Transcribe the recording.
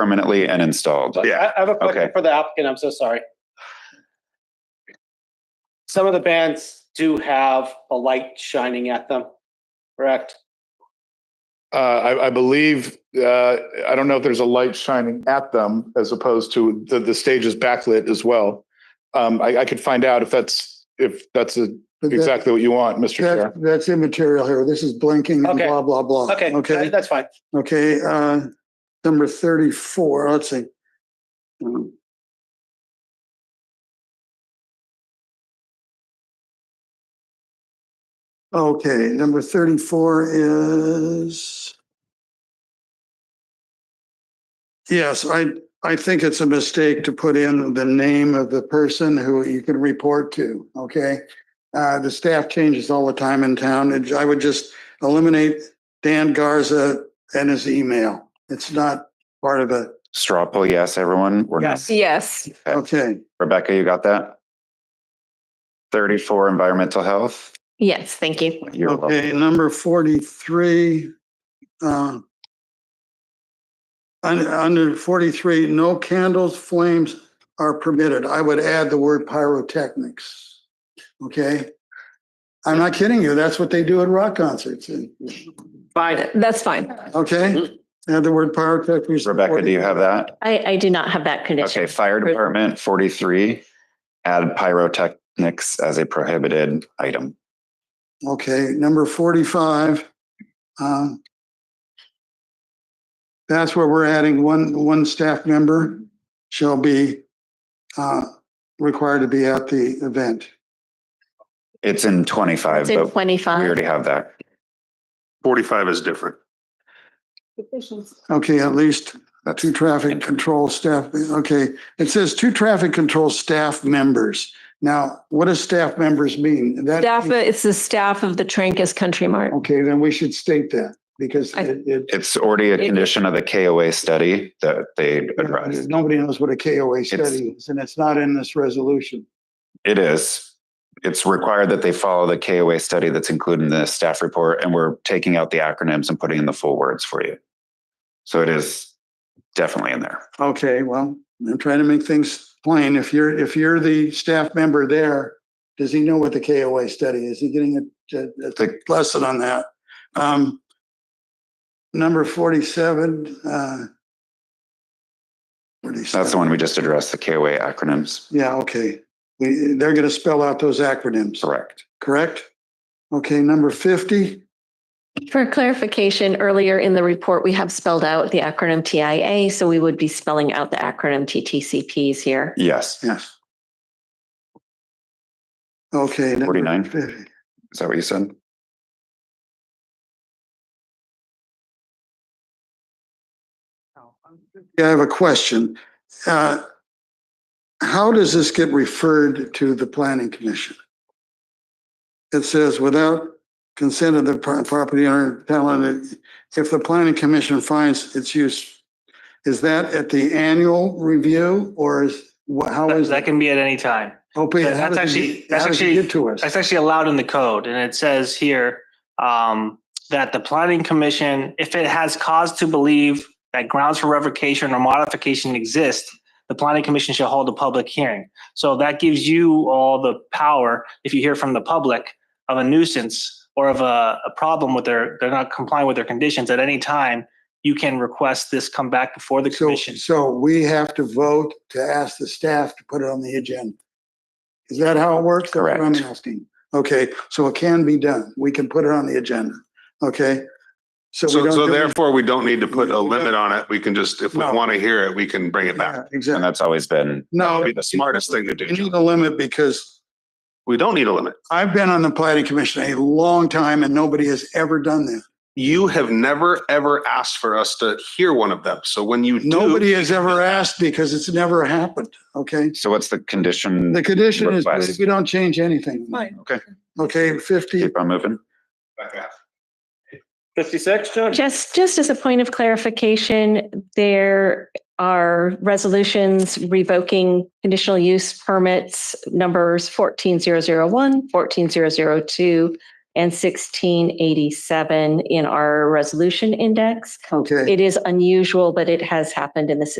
permanently and installed. But Yeah, I I have a question okay. for the applicant. I'm so sorry. Some of the bands do have a light shining at them, correct? Uh, I, I believe, uh, I don't know if there's a light shining at them as opposed to the, the stage is backlit as well. Um, I, I could find out if that's, if that's a- But that- exactly what you want, Mr. That, Chair. that's immaterial here. This is blinking and Okay. blah, blah, blah. Okay, Oh, Okay, that's fine. okay, uh, number thirty-four, let's see. Um, Okay, number thirty-four is. Yes, I, I think it's a mistake to put in the name of the person who you can report to, okay? Uh, the staff changes all the time in town. and I would just eliminate Dan Garza and his email. It's not part of it. Straw poll, yes, everyone? We're not- Yes, Okay, Rebecca, you got that? Thirty-four, environmental health. yes, thank you. You're welcome. okay, number forty-three. uh, un- Under forty-three, no candles, flames are permitted. I would add the word pyrotechnics. Okay? I'm not kidding you. That's what they do at rock concerts. Fine. That's fine. Okay? Add the word pyrotechnics. to Mm-hmm. Rebecca, do you have that? I, I do not have that condition. Okay, fire department, forty-three, add pyrotechnics as a prohibited item. Okay, number forty-five. um, That's where we're adding one, one staff member shall be uh, required to be at the event. It's in twenty-five, It's in but we twenty-five. already have that. Forty-five is different. Okay, at least That's two traffic control staff, okay, it says two traffic control staff members. Now, what does staff members mean? That- Staff, it's the staff of the Trancas Country Mart. Okay, then we should state that because I- it, it- It's already a condition of the KOA study that they addressed. nobody knows what a KOA study is, and it's not in this resolution. It is. It's required that they follow the KOA study that's included in the staff report, and we're taking out the acronyms and putting in the full words for you. So it is definitely in there. Okay, well, I'm trying to make things plain. If you're, if you're the staff member there, does he know what the KOA study is? He getting a, a- a The- lesson on that? Um, number forty-seven, uh. That's the one we just addressed, the KOA acronyms. Yeah, okay. We, they're gonna spell out those acronyms, Correct. correct? Okay, number fifty, For clarification, earlier in the report, we have spelled out the acronym TIA, so we would be spelling out the acronym TTCPs here. Yes. yes. Okay. number 49? 50. Is that what you said? Yeah, I have a question. Uh, How does this get referred to the planning commission? It says, without consent of the pro- property owner, talented, if the planning commission finds its use, is that at the annual review or is, wha- how That, is? that can be at any time. Oh, wait, that's how does it actually- get- that's how does it actually- get to us? That's actually allowed in the code, and it says here um, that the planning commission, if it has cause to believe that grounds for revocation or modification exist, the planning commission shall hold a public hearing. So that gives you all the power, if you hear from the public, of a nuisance or of a, a problem with their, they're not complying with their conditions at any time, you can request this come back before the So, commission. so we have to vote to ask the staff to put it on the agenda. Is that how it works? That's what Correct. I'm asking. Okay, so it can be done. We can put it on the agenda. Okay? So we So, don't so do- therefore, we don't need to put a We limit don't- on it. We can just, if we No. want to hear it, we can bring it Yeah, back. And Exactly. that's always been, That No, would be the smartest thing to you do. need a limit because We don't need a limit. I've been on the planning commission a long time and nobody has ever done that. You have never, ever asked for us to hear one of them. So when you do, Nobody has ever asked because it's never happened. Okay? so what's the condition? The condition is Request. we don't change anything. Okay. Okay, fifty, Keep on moving. Fifty-six, John? Just, just as a point of clarification, there are resolutions revoking conditional use permits numbers 14001, 14002, and 1687 in our resolution index. Okay. It is unusual, but it has happened in the